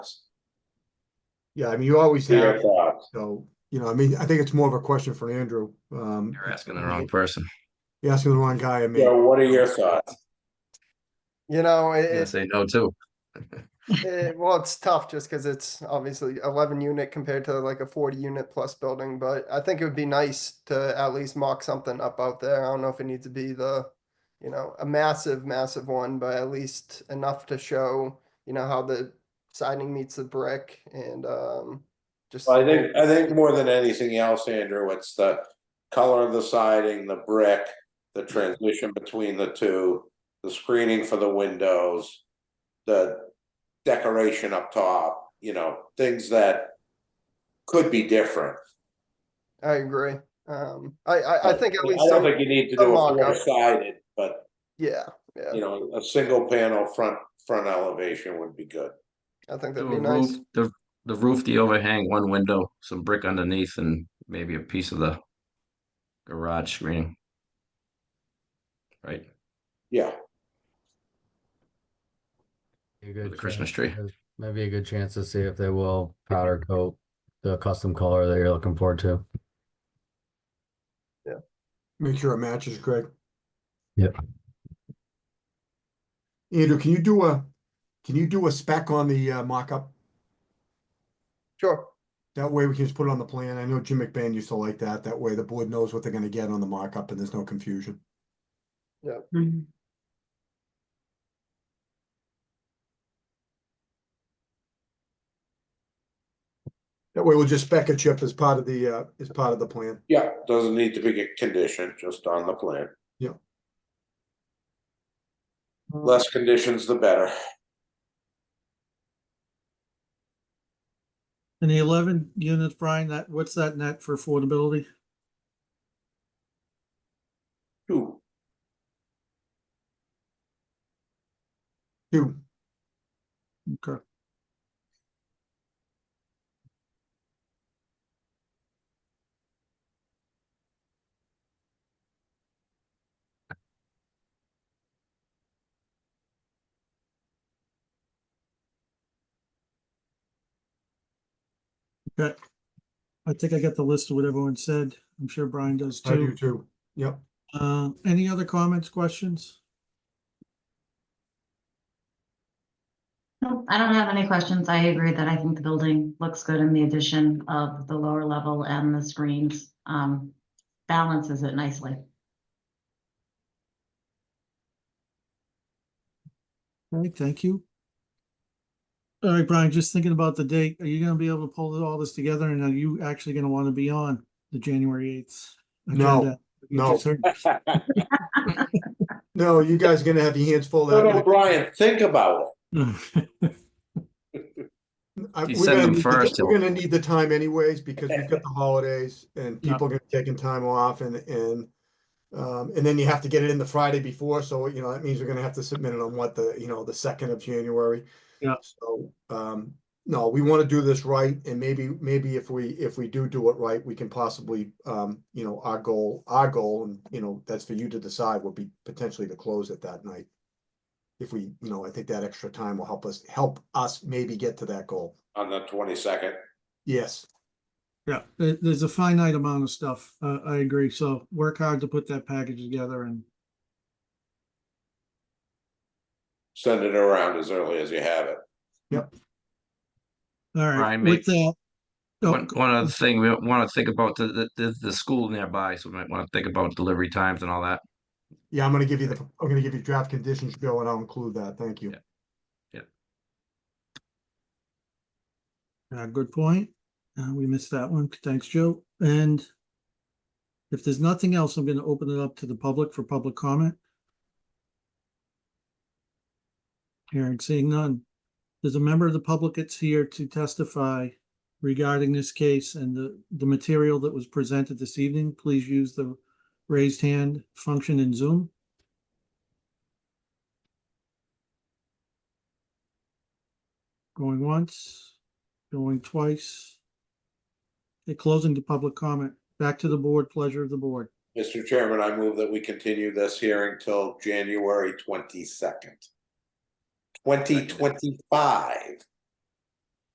Yeah, I mean, you always Your have, thoughts? so, you know, I mean, I think it's more of a question for Andrew. Um, You're asking the wrong person. You're asking the wrong guy, I mean. So what are your thoughts? You know, I'm gonna it, say no too. it, well, it's tough just because it's obviously eleven unit compared to like a forty unit plus building, but I think it would be nice to at least mock something up out there. I don't know if it needs to be the, you know, a massive, massive one, but at least enough to show, you know, how the siding meets the brick and, um, just. I think, I think more than anything else, Andrew, it's the color of the siding, the brick, the transition between the two, the screening for the windows, the decoration up top, you know, things that could be different. I agree. Um, I, I, I think at least I don't some, think you need to some do a mock-up. four-sided, but, yeah, yeah, you know, a single panel front, front elevation would be good. I think The that'd be nice. roof, the, the roof, the overhang, one window, some brick underneath and maybe a piece of the garage screening. Right? Yeah, Be A good the Christmas chance- tree. Might be a good chance to see if they will powder coat the custom color that you're looking forward to. Make sure it matches, Greg. Yep. Andrew, can you do a, can you do a spec on the uh, mock-up? Sure. That way we can just put it on the plan. I know Jim McBain used to like that. That way the board knows what they're gonna get on the mock-up and there's no confusion. That way we'll just spec a chip as part of the, uh, as part of the plan. yeah, doesn't need to be a condition, just on the plan. Yeah. Less conditions, the better. And the eleven units, Brian, that, what's that net for affordability? Two, Two, Okay, okay. I think I got the list of what everyone said. I'm sure Brian does I do too. two. Yep. Uh, any other comments, questions? Nope, I don't have any questions. I agree that I think the building looks good in the addition of the lower level and the screens. Um, balances it nicely. All right, thank you. All right, Brian, just thinking about the date, are you gonna be able to pull all this together and are you actually gonna wanna be on the January eighth? No, no. No, you guys are gonna have your hands full. that Little night. Brian, think about it. I- we're You send gonna them need the- first, We're he'll- gonna need the time anyways, because we've got the holidays and people are gonna be taking time off and, and. Um, and then you have to get it in the Friday before, so you know, that means we're gonna have to submit it on what the, you know, the second of January. Yeah. So, um, no, we wanna do this right and maybe, maybe if we, if we do do it right, we can possibly, um, you know, our goal, our goal, and you know, that's for you to decide, would be potentially to close it that night. If we, you know, I think that extra time will help us, help us maybe get to that goal. on the twenty-second. Yes, Yeah, there, there's a finite amount of stuff. Uh, I agree. So work hard to put that package together and Send it around as early as you have it. all right. Brian, mate. With that. oh, One, one other thing, we want to think about the, the, the, the school nearby, so we might want to think about delivery times and all that. yeah, I'm gonna give you the, I'm gonna give you draft conditions, Joe, and I'll include that, thank you. Yeah. Uh, good point. Uh, we missed that one. Thanks, Joe. And if there's nothing else, I'm gonna open it up to the public for public comment. Hearing, seeing none. There's a member of the public that's here to testify regarding this case and the, the material that was presented this evening. Please use the raised hand function in Zoom. Going once, going twice. Okay, closing to public comment. Back to the board, pleasure of the board. Mr. Chairman, I move that we continue this hearing till January twenty-second. Twenty twenty-five.